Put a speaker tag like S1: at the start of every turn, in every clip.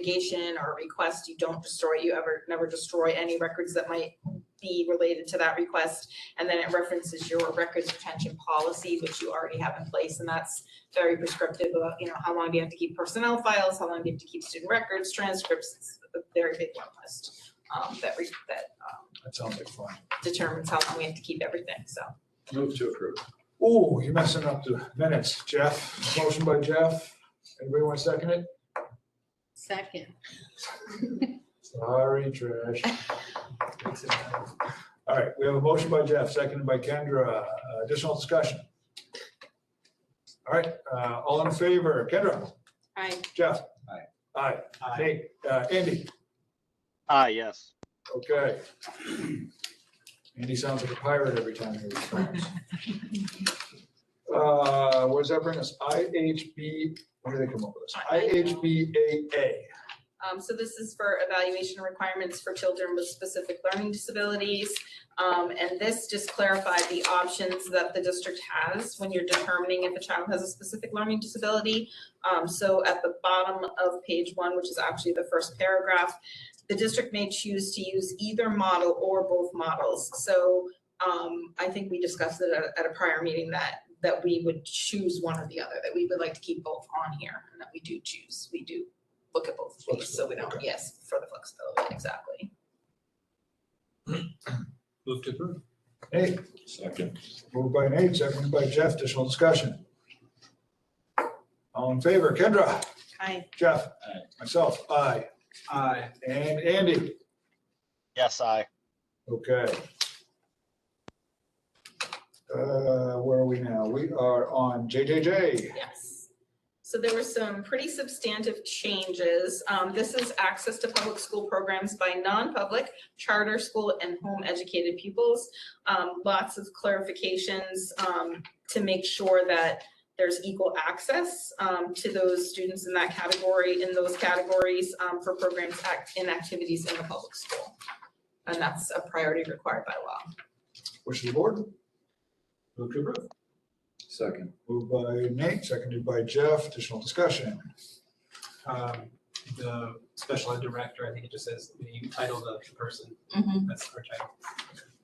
S1: litigation or request, you don't destroy, you ever, never destroy any records that might be related to that request. And then it references your records retention policy, which you already have in place, and that's very prescriptive about, you know, how long do you have to keep personnel files, how long do you have to keep student records, transcripts, it's a very big long list, um, that re, that, um,
S2: That sounds like fun.
S1: determines how long we have to keep everything, so.
S3: Move to approve.
S2: Ooh, you're messing up the minutes, Jeff. Motion by Jeff. Anybody want to second it?
S4: Second.
S2: Sorry, Trish. All right, we have a motion by Jeff, seconded by Kendra. Uh, Additional discussion. All right, uh, all in favor, Kendra,
S4: Aye.
S2: Jeff?
S3: Aye.
S2: Aye. Nate, uh, Andy,
S5: Ah, yes.
S2: okay. Andy sounds like a pirate every time he responds. Uh, what does that bring us? IHB, where do they come up with this? IHBAA.
S1: Um, so this is for evaluation requirements for children with specific learning disabilities. Um, and this just clarified the options that the district has when you're determining if a child has a specific learning disability. Um, so at the bottom of page one, which is actually the first paragraph, the district may choose to use either model or both models. So, um, I think we discussed it at, at a prior meeting that, that we would choose one or the other, that we would like to keep both on here and that we do choose, we do look at both of these, so we don't, yes, for the flexibility, exactly.
S3: Move to approve.
S2: Nate,
S3: Second.
S2: moved by Nate, seconded by Jeff, additional discussion. All in favor, Kendra,
S1: Aye.
S2: Jeff?
S3: Aye.
S2: Myself, aye,
S3: Aye.
S2: and Andy,
S5: Yes, I.
S2: okay. Uh, where are we now? We are on JJJ.
S1: Yes. So there were some pretty substantive changes. Um, this is access to public school programs by non-public, charter school, and home-educated pupils. Um, lots of clarifications, um, to make sure that there's equal access, um, to those students in that category, in those categories, um, for programs act- and activities in the public school. And that's a priority required by law.
S2: Wish of the board,
S3: Move to approve. Second.
S2: moved by Nate, seconded by Jeff, additional discussion.
S6: um, the special ed director, I think it just says the title of the person,
S1: Mm-hmm.
S6: that's our title.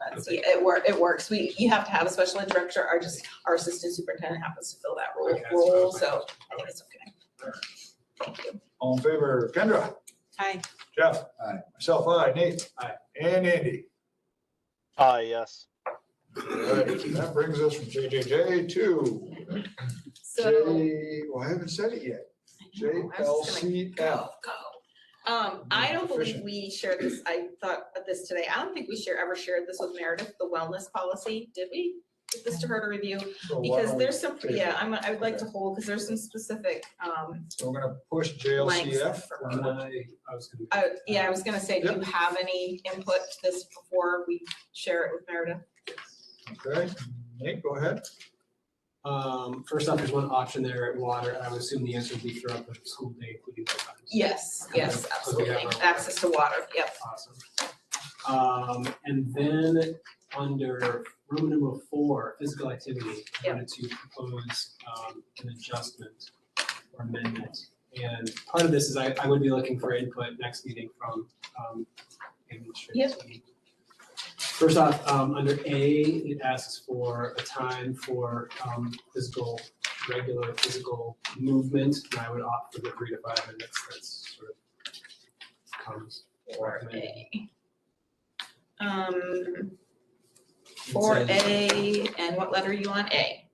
S1: That's, yeah, it wor, it works. We, you have to have a special ed director, our just, our assistant superintendent happens to fill that role,
S6: Okay, that's what I
S1: role,
S6: was
S1: so I think it's okay. Thank you.
S2: All in favor, Kendra,
S4: Aye.
S2: Jeff?
S3: Aye.
S2: Myself, aye, Nate?
S6: Aye.
S2: And Andy.
S5: Ah, yes.
S2: Alright, That brings us from JJJ to
S1: So.
S2: J, well, I haven't said it yet.
S1: I know, I was just gonna
S2: JLCF.
S1: Go, go. Um, I don't believe
S2: Efficient.
S1: we shared this, I thought of this today. I don't think we share, ever shared this with Meredith, the wellness policy, did we? Give this to her to review,
S2: So why
S1: because
S2: don't we-
S1: there's some,
S2: table it?
S1: yeah, I'm, I would like to hold, because there's some specific, um,
S2: So we're gonna push
S1: Blanks
S2: JLCF.
S1: for-
S2: We're gonna-
S6: I, I was gonna.
S1: Uh, yeah, I was gonna say, do you
S2: Yep.
S1: have any input to this before we share it with Meredith?
S2: Okay, Nate, go ahead.
S6: Um, first off, there's one option there at water, and I would assume the answer would be throughout the school day, including the times.
S1: Yes, yes,
S6: yes, Okay, absolutely.
S1: absolutely.
S6: have our-
S1: Access to water, yep.
S6: Awesome. Um, and then under room number four, physical activity, I
S1: Yep.
S6: wanted to propose, um, an adjustment or amendment. And part of this is I, I would be looking for input next meeting from, um, administrators. First off, um, under A, it asks for a time for, um, physical, regular physical movement. And I would opt for the three to five minutes, that's sort of comes.
S1: Four
S6: recommended.
S1: A. Um,
S6: It
S1: four
S6: says-
S1: A, and what letter are you on? A.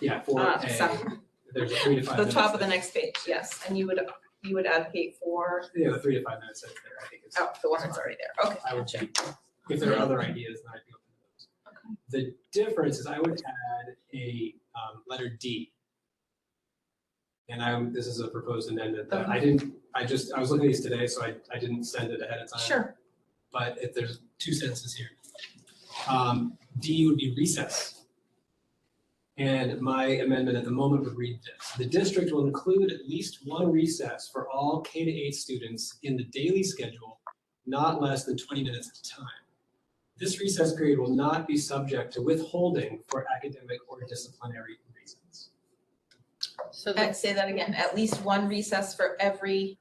S6: Yeah, four
S1: Uh,
S6: A,
S1: so-
S6: there's a three to five
S1: The
S6: minutes.
S1: top of the
S6: that-
S1: next page, yes, and you would, you would advocate for,
S6: Yeah, the three to five minutes that's there, I think it's,
S1: oh, the one that's already there, okay.
S6: I would check. If there are other ideas, then I'd be open to those. The difference is I would add a, um, letter D. And I, this is a proposed amendment that I didn't, I just, I was looking at these today, so I, I didn't send it ahead of time.
S1: Sure,
S6: But if there's two sentences here. Um, D would be recess. And my amendment at the moment would read this. The district will include at least one recess for all K to eight students in the daily schedule, not less than twenty minutes at a time. This recess period will not be subject to withholding for academic or disciplinary reasons.
S4: So
S1: Uh,
S4: that's
S1: say that again, at least one recess for every